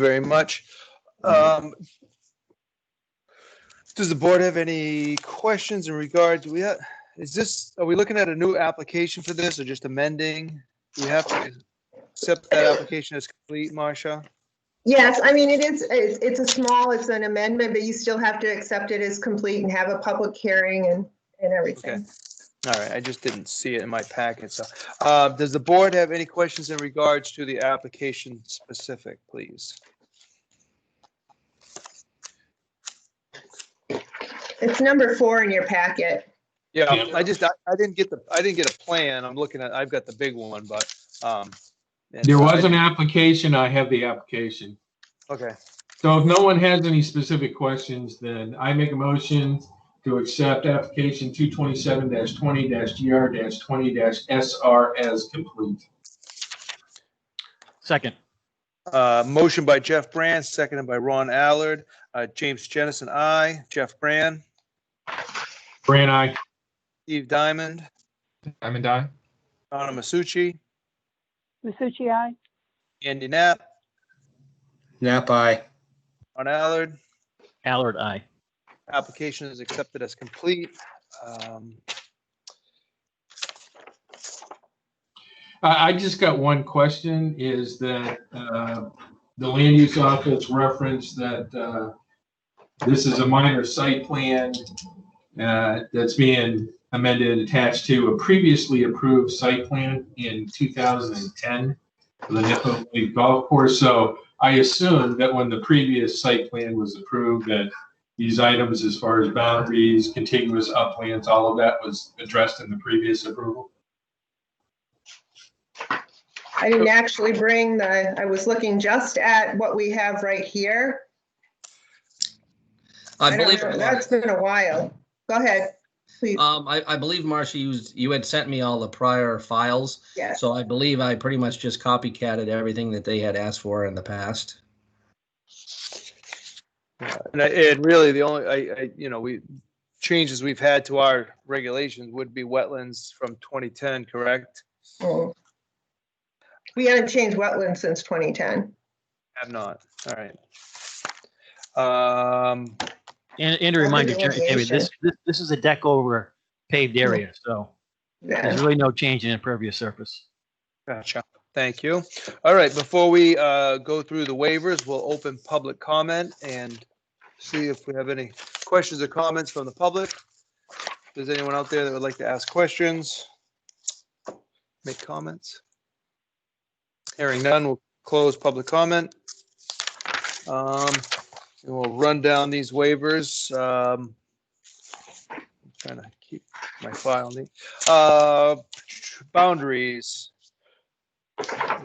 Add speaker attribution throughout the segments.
Speaker 1: very much. Um, Does the board have any questions in regard, do we, ha- is this, are we looking at a new application for this or just amending? Do we have to accept that application as complete, Marcia?
Speaker 2: Yes, I mean, it is, it's, it's a small, it's an amendment, but you still have to accept it as complete and have a public hearing and, and everything.
Speaker 1: All right, I just didn't see it in my packet, so. uh, Does the board have any questions in regards to the application specific, please?
Speaker 2: It's number four in your packet.
Speaker 1: Yeah, I just, I I didn't get the, I didn't get a plan. I'm looking at, I've got the big one, but. um, and
Speaker 3: There
Speaker 1: so I
Speaker 3: was an
Speaker 1: didn't-
Speaker 3: application, I have the application.
Speaker 1: Okay,
Speaker 3: So if no one has any specific questions, then I make a motion to accept application two twenty-seven twenty GR twenty SR as complete.
Speaker 4: Second,
Speaker 1: Uh, motion by Jeff Brand, seconded by Ron Allard. Uh, James Jennison, I. Jeff Brand,
Speaker 3: Brand, I.
Speaker 1: Steve Diamond,
Speaker 5: Diamond Eye?
Speaker 1: Donna Masucci,
Speaker 6: Masucci, aye.
Speaker 1: Andy Knapp,
Speaker 7: Nap eye.
Speaker 1: Ron Allard.
Speaker 4: Allard, aye.
Speaker 1: Application is accepted as complete. Um,
Speaker 3: I, I just got one question, is that, uh, the land use office referenced that, uh, this is a minor site plan, uh, that's being amended, and attached to a previously approved site plan in two thousand and ten for the Nippa Lake Golf Course, so I assume that when the previous site plan was approved, that these items as far as boundaries, contiguous uplands, all of that was addressed in the previous approval?
Speaker 2: I didn't actually bring the, I was looking just at what we have right here.
Speaker 7: I
Speaker 2: don't
Speaker 7: believe,
Speaker 2: know, That's been a while. Go ahead, please.
Speaker 7: um, I, I believe Marcia, you, you had sent me all the prior files.
Speaker 2: Yes,
Speaker 7: So I believe I pretty much just copycatted everything that they had asked for in the past.
Speaker 1: And I- and really, the only, I, I, you know, we, changes we've had to our regulations would be wetlands from 2010, correct?
Speaker 2: Mm. We haven't changed wetlands since 2010.
Speaker 1: Have not, all right. Um,
Speaker 4: And, and a reminder, Jerry, David, this, this, this is a deck over paved area, so
Speaker 2: Yeah.
Speaker 4: there's really no change in impervious surface.
Speaker 1: Gotcha. Thank you. All right, before we uh, go through the waivers, we'll open public comment and see if we have any questions or comments from the public. If there's anyone out there that would like to ask questions, make comments. Hearing none, we'll close public comment. Um, And we'll run down these waivers. Um, I'm Trying to keep my file neat. Uh, Boundaries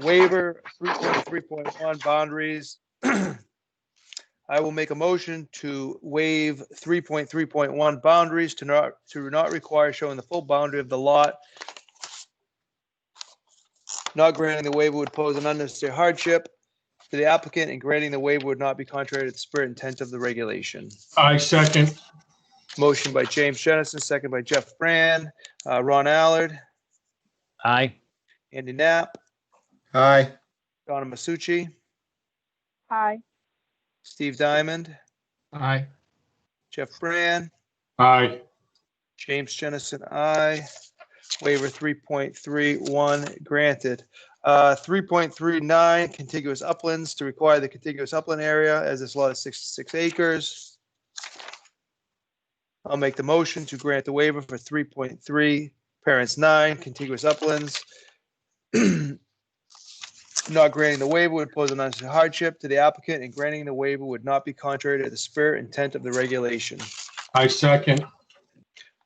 Speaker 1: waiver three point three point one boundaries. I will make a motion to waive three point three point one boundaries to not, to not require showing the full boundary of the lot. Not granting the waiver would pose an unnecessary hardship to the applicant and granting the waiver would not be contrary to the spirit and intent of the regulation.
Speaker 3: I second.
Speaker 1: Motion by James Jennison, second by Jeff Brand, uh, Ron Allard,
Speaker 4: Aye.
Speaker 1: Andy Knapp,
Speaker 5: Aye.
Speaker 1: Donna Masucci,
Speaker 6: Aye.
Speaker 1: Steve Diamond,
Speaker 5: Aye.
Speaker 1: Jeff Brand,
Speaker 3: Aye.
Speaker 1: James Jennison, I Waiver three point three one granted. Uh, three point three nine contiguous uplands to require the contiguous upland area as this lot is sixty-six acres. I'll make the motion to grant the waiver for three point three, parents nine, contiguous uplands. Not granting the waiver would pose an unnecessary hardship to the applicant and granting the waiver would not be contrary to the spirit and intent of the regulation.
Speaker 3: I second.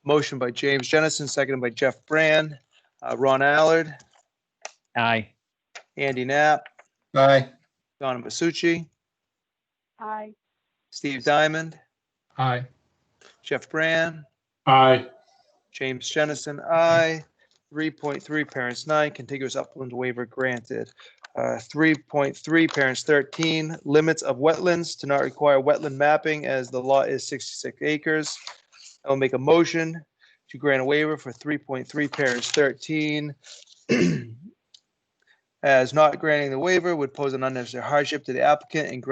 Speaker 1: Motion by James Jennison, seconded by Jeff Brand, uh, Ron Allard,
Speaker 4: Aye.
Speaker 1: Andy Knapp,
Speaker 5: Aye.
Speaker 1: Donna Masucci,
Speaker 6: Aye.
Speaker 1: Steve Diamond,
Speaker 5: Aye.
Speaker 1: Jeff Brand,
Speaker 3: Aye.
Speaker 1: James Jennison, I. 3.3, parents 9, contiguous upland waiver granted. Uh, 3.3, parents 13, limits of wetlands to not require wetland mapping as the lot is 66 acres. I'll make a motion to grant a waiver for 3.3, parents 13, as not granting the waiver would pose an unnecessary hardship to the applicant and grant